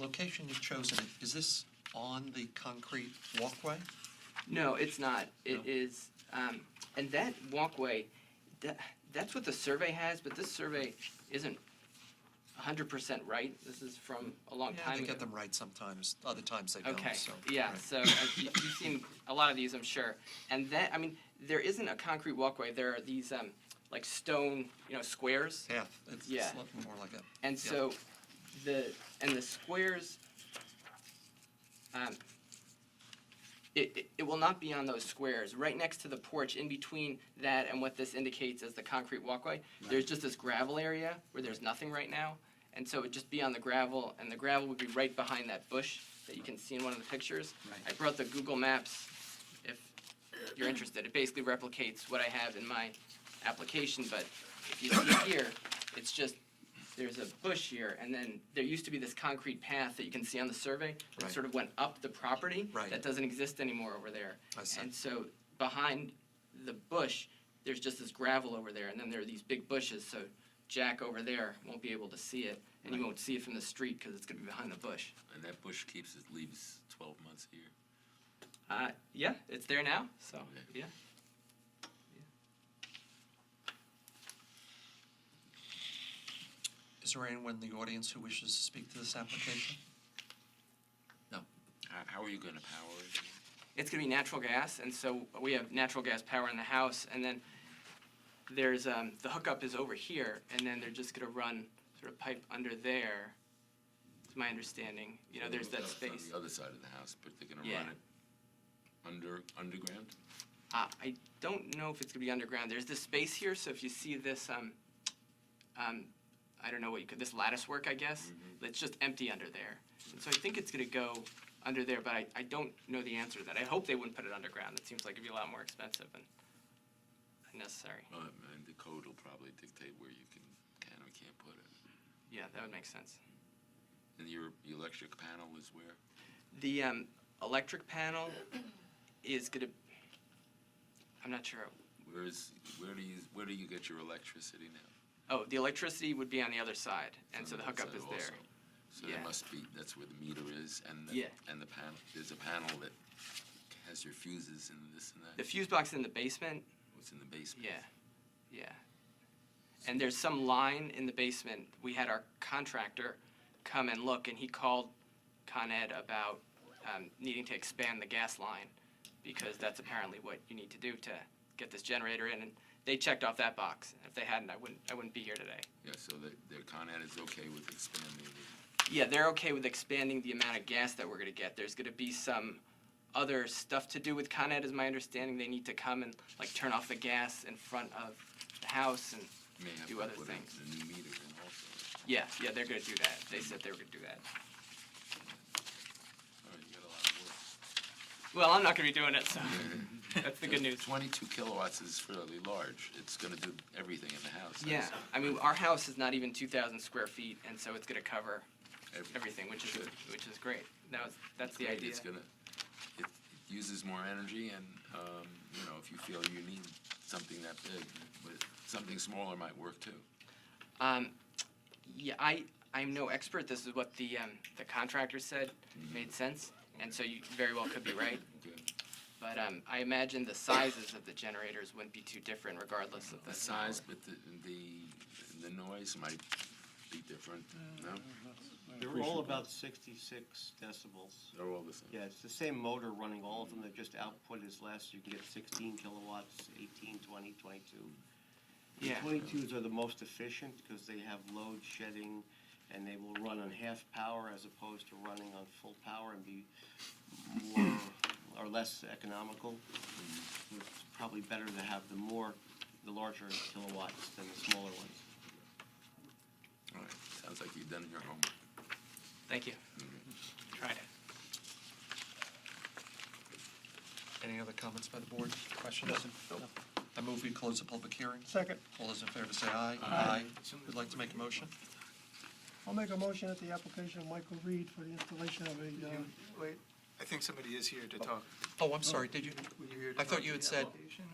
location you've chosen, is this on the concrete walkway? No, it's not. No. It is, um, and that walkway, that, that's what the survey has, but this survey isn't hundred percent right. This is from a long Yeah, time They ago. get them right sometimes, other times they don't, Okay, so. yeah, right. so uh, you- you've seen a lot of these, I'm sure. And then, I mean, there isn't a concrete walkway, there are these, um, like stone, you know, squares. Half, it's Yeah. it's look more like a. And yeah. so the, and the squares, um, it, it- it will not be on those squares. Right next to the porch, in between that and what this indicates as the concrete walkway, there's just this gravel area where there's nothing right now. And so it would just be on the gravel, and the gravel would be right behind that bush that you can see in one of the pictures. Right. I brought the Google Maps, if you're interested. It basically replicates what I have in my application, but if you see here, it's just, there's a bush here, and then there used to be this concrete path that you can see on the survey that Right. sort of went up the property. Right. That doesn't exist anymore over there. I see. And so behind the bush, there's just this gravel over there, and then there are these big bushes, so Jack over there won't be able to see it, and you won't see it from the street because it's gonna be behind the bush. And that bush keeps its leaves 12 months a year. Uh, yeah, it's there now, so, yeah. Is there anyone in the audience who wishes to speak to this application? How, how are you going to power it? it's going to be natural gas, and so we have natural gas power in the house, and then there's, um, the hookup is over here, and then they're just going to run sort of pipe under there, is my understanding. You know, there's that That's on space. the other side of the house, but they're going to Yeah. run it under underground. Uh, I don't know if it's going to be underground. There's this space here, so if you see this, um, um, I don't know what you could, this lattice work, I guess, it's just empty under there. And so I think it's going to go under there, but I, I don't know the answer to that. I hope they wouldn't put it underground. It seems like it'd be a lot more expensive and unnecessary. Um, and the code will probably dictate where you can can or can't put it. Yeah, that would make sense. And your your electric panel is where? The um, electric panel is gonna, I'm not sure. Where is where do you where do you get your electricity now? Oh, the electricity would be on the other side, and It's so on the other hookup side is also. there. So Yeah. there must be that's where the meter is, and the, Yeah. and the panel there's a panel that has your fuses and this and The that. fuse box in the basement, What's in the basement? yeah, yeah. And there's some line in the basement. We had our contractor come and look, and he called Con Ed about um, needing to expand the gas line, because that's apparently what you need to do to get this generator in, and they checked off that box. If they hadn't, I wouldn't, I wouldn't be here today. Yeah, so the, the Con Ed is okay with expanding the, Yeah, they're okay with expanding the amount of gas that we're gonna get. There's gonna be some other stuff to do with Con Ed, is my understanding. They need to come and like turn off the gas in front of the house and, may have Do to other put in things. a new meter in also. yeah, yeah, they're gonna do that. They said they were gonna do that. All right, you got a lot of work. Well, I'm not gonna be doing it, so that's the good news. Twenty-two kilowatts is fairly large. It's gonna do everything in the house. Yeah, That's I mean, our house is not even two thousand square feet, and so it's gonna cover every- everything, which is, Good. which is great. That was, that's the Great, idea. It's gonna, it it uses more energy and, um, you know, if you feel you need something that big, but something smaller might work too. Um, yeah, I, I'm no expert. This is what the, um, the contractor said made sense, and so you very well could be right. Good. But, um, I imagine the sizes of the generators wouldn't be too different regardless of the. The size, but the, the, the noise might be different, no? Mm-hmm. They're all about sixty-six decibels. They're all the same. Yeah, it's the same motor running all of them, they're just output is less, you can get sixteen kilowatts, 18, 20, 22. The Yeah. Twenty-twos are the most efficient because they have load shedding and they will run on half power as opposed to running on full power and be more or less economical. So It's probably better to have the more, the larger kilowatts than the smaller ones. All right, sounds like you've done your homework. Thank you. Tried it. Any other comments by the board, questions? No. I move we close the public hearing. Second, All those in favor say aye. Aye. Would like to make a motion? I'll make a motion at the application of Michael Reed for the installation of a, uh, Wait, I think somebody is here to talk. Oh, I'm sorry, did you? Were you here to I thought talk you to had the said- application?